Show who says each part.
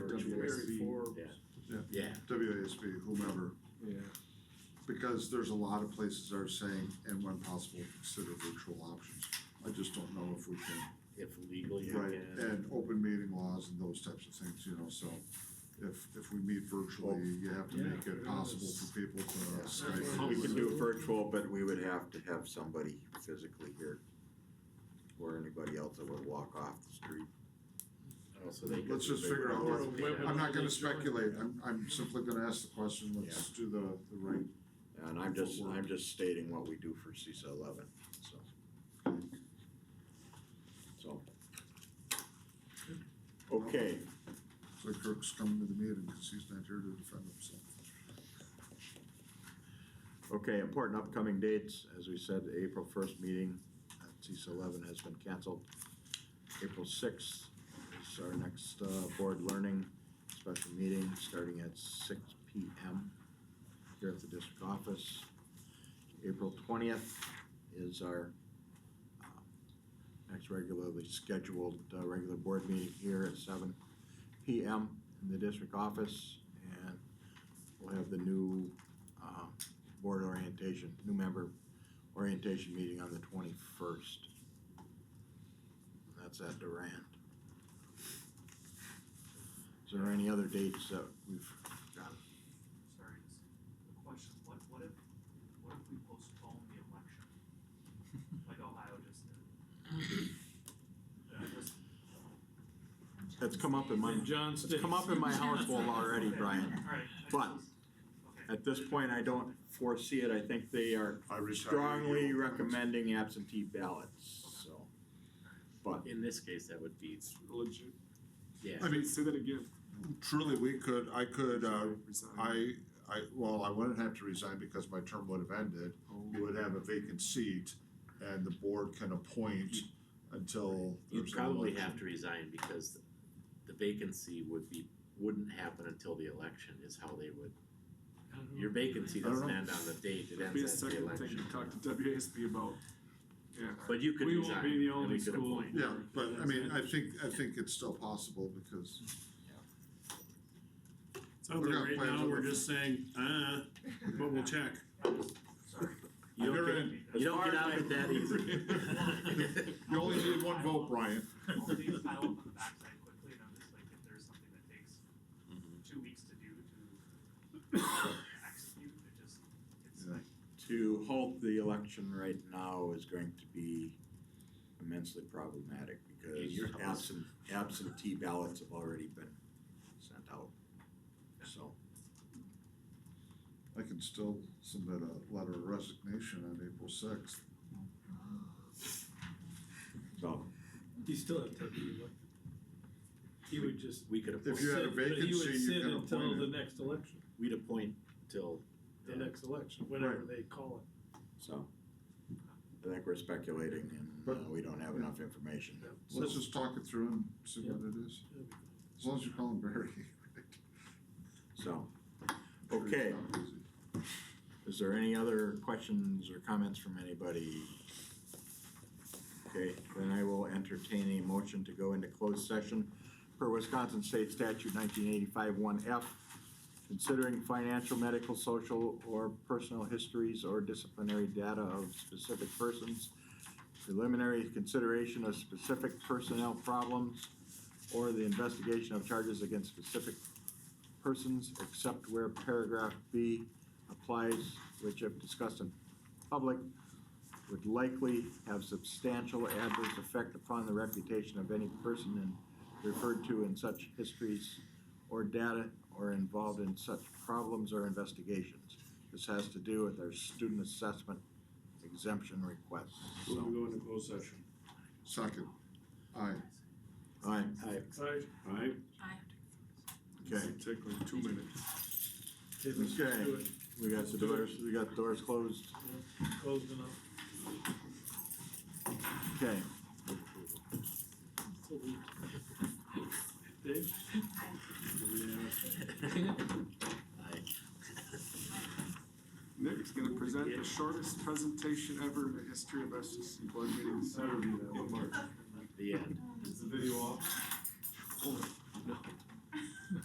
Speaker 1: just be whomever,
Speaker 2: Yeah,
Speaker 1: because there's a lot of places that are saying, and when possible, consider virtual options. I just don't know if we can,
Speaker 3: if legally you
Speaker 1: right,
Speaker 3: can.
Speaker 1: and open meeting laws and those types of things, you know, so if, if we meet virtually, you have to make
Speaker 2: Yeah,
Speaker 1: it
Speaker 2: yeah,
Speaker 1: possible
Speaker 2: that's-
Speaker 1: for people to
Speaker 4: That's
Speaker 1: Skype.
Speaker 2: what
Speaker 4: We
Speaker 1: or
Speaker 4: can
Speaker 1: whatever.
Speaker 4: do virtual, but we would have to have somebody physically here. Or anybody else that would walk off the street.
Speaker 3: Also, they could.
Speaker 1: Let's just
Speaker 3: they
Speaker 1: figure
Speaker 3: would
Speaker 1: out
Speaker 3: always
Speaker 2: what-
Speaker 3: pay
Speaker 2: what-
Speaker 3: that.
Speaker 1: I'm not
Speaker 2: Everybody
Speaker 1: gonna
Speaker 2: join.
Speaker 1: speculate, I'm, I'm simply gonna ask the question, let's do the, the right,
Speaker 4: And I'm just, I'm just stating what we do for CISA eleven, so. So. Okay,
Speaker 1: so Kirk's coming to the meeting, cause he's not here to defend himself.
Speaker 4: okay, important upcoming dates, as we said, the April first meeting at CISA eleven has been canceled. April sixth is our next, uh, board learning special meeting, starting at six P M. Here at the district office. April twentieth is our, um, next regularly scheduled, uh, regular board meeting here at seven P M in the district office. And we'll have the new, um, board orientation, new member orientation meeting on the twenty-first. That's at Durand. Is there any other dates that we've got?
Speaker 5: Sorry, just a question, what, what if, what if we postpone the election? Like Ohio just did. Yeah, just-
Speaker 4: That's come up in my,
Speaker 2: And John
Speaker 4: it's come up in my household already, Brian.
Speaker 5: Alright. I
Speaker 4: But-
Speaker 5: just- okay.
Speaker 4: At this point, I don't foresee it. I think they are
Speaker 1: I
Speaker 4: strongly recommending absentee ballots, so. But
Speaker 3: In this case, that would be,
Speaker 2: it's legit.
Speaker 3: yeah,
Speaker 2: I mean, say that again.
Speaker 1: Truly, we could, I could, uh,
Speaker 2: Resign.
Speaker 1: I, I, well, I wouldn't have to resign because my term would have ended. We would have a vacant seat and the board can appoint until
Speaker 3: you
Speaker 1: there's an
Speaker 3: probably
Speaker 1: election.
Speaker 3: have to resign because the vacancy would be, wouldn't happen until the election is how they would. Your vacancy
Speaker 1: I don't
Speaker 3: doesn't
Speaker 1: know.
Speaker 3: end on the date, it
Speaker 2: That'd be a
Speaker 3: ends at the
Speaker 2: second thing
Speaker 3: election.
Speaker 2: to talk to WASB about. Yeah.
Speaker 3: But you could
Speaker 2: We won't
Speaker 3: resign,
Speaker 2: be the
Speaker 3: and
Speaker 2: only
Speaker 3: we could
Speaker 2: school.
Speaker 3: appoint.
Speaker 1: Yeah, but I mean, I think, I think it's still possible because,
Speaker 6: Sounds
Speaker 1: We're
Speaker 6: like
Speaker 1: gonna
Speaker 6: right
Speaker 1: play
Speaker 6: now,
Speaker 1: with
Speaker 6: we're
Speaker 1: the-
Speaker 6: just saying, uh, but we'll check.
Speaker 5: Sorry.
Speaker 3: You
Speaker 1: You're
Speaker 3: don't
Speaker 1: in.
Speaker 3: get, you don't get out of it that
Speaker 1: Well,
Speaker 3: easy.
Speaker 1: you only need one vote, Brian.
Speaker 5: I'll leave the file up on the backside quickly, and I'm just like, if there's something that takes
Speaker 3: Mm-hmm.
Speaker 5: two weeks to do to execute, it just, it's
Speaker 1: Yeah.
Speaker 5: like,
Speaker 4: to halt the election right now is going to be immensely problematic because
Speaker 3: your house.
Speaker 4: absent, absentee ballots have already been sent out. So,
Speaker 1: I can still submit a letter of resignation on April sixth.
Speaker 4: so,
Speaker 7: You still have to be elected. He would just.
Speaker 3: We could
Speaker 1: If you
Speaker 3: appoint,
Speaker 1: had a
Speaker 7: sit, but
Speaker 1: vacancy, you
Speaker 7: He
Speaker 1: can
Speaker 7: would sit until
Speaker 1: appoint
Speaker 7: the
Speaker 1: it.
Speaker 7: next election,
Speaker 3: we'd appoint till,
Speaker 7: the
Speaker 3: Yeah.
Speaker 7: next election, whenever they call it.
Speaker 4: so. I think we're speculating and uh,
Speaker 1: But-
Speaker 4: we don't have enough information.
Speaker 1: Let's just talk it through and see what it is, as long as you call him Barry.
Speaker 4: So, okay,
Speaker 1: It's not easy.
Speaker 4: is there any other questions or comments from anybody? Okay, then I will entertain a motion to go into closed session per Wisconsin State Statute nineteen eighty-five one F. Considering financial, medical, social, or personal histories or disciplinary data of specific persons. Preliminary consideration of specific personnel problems or the investigation of charges against specific persons, except where paragraph B applies, which if discussed in public, would likely have substantial adverse effect upon the reputation of any person and referred to in such histories or data or involved in such problems or investigations. This has to do with our student assessment exemption request,
Speaker 6: We'll
Speaker 4: so.
Speaker 6: go into closed session.
Speaker 1: Second, aye.
Speaker 4: All right,
Speaker 2: Aye.
Speaker 6: Alright,
Speaker 4: okay.
Speaker 6: take like two minutes.
Speaker 4: Okay, we got the doors, we got the doors closed.
Speaker 7: Closed enough.
Speaker 4: Okay,
Speaker 7: Dave?
Speaker 3: uh,
Speaker 2: Nick's gonna present the shortest presentation ever in the history of SGC board meetings.
Speaker 3: the end.
Speaker 2: Is the video off?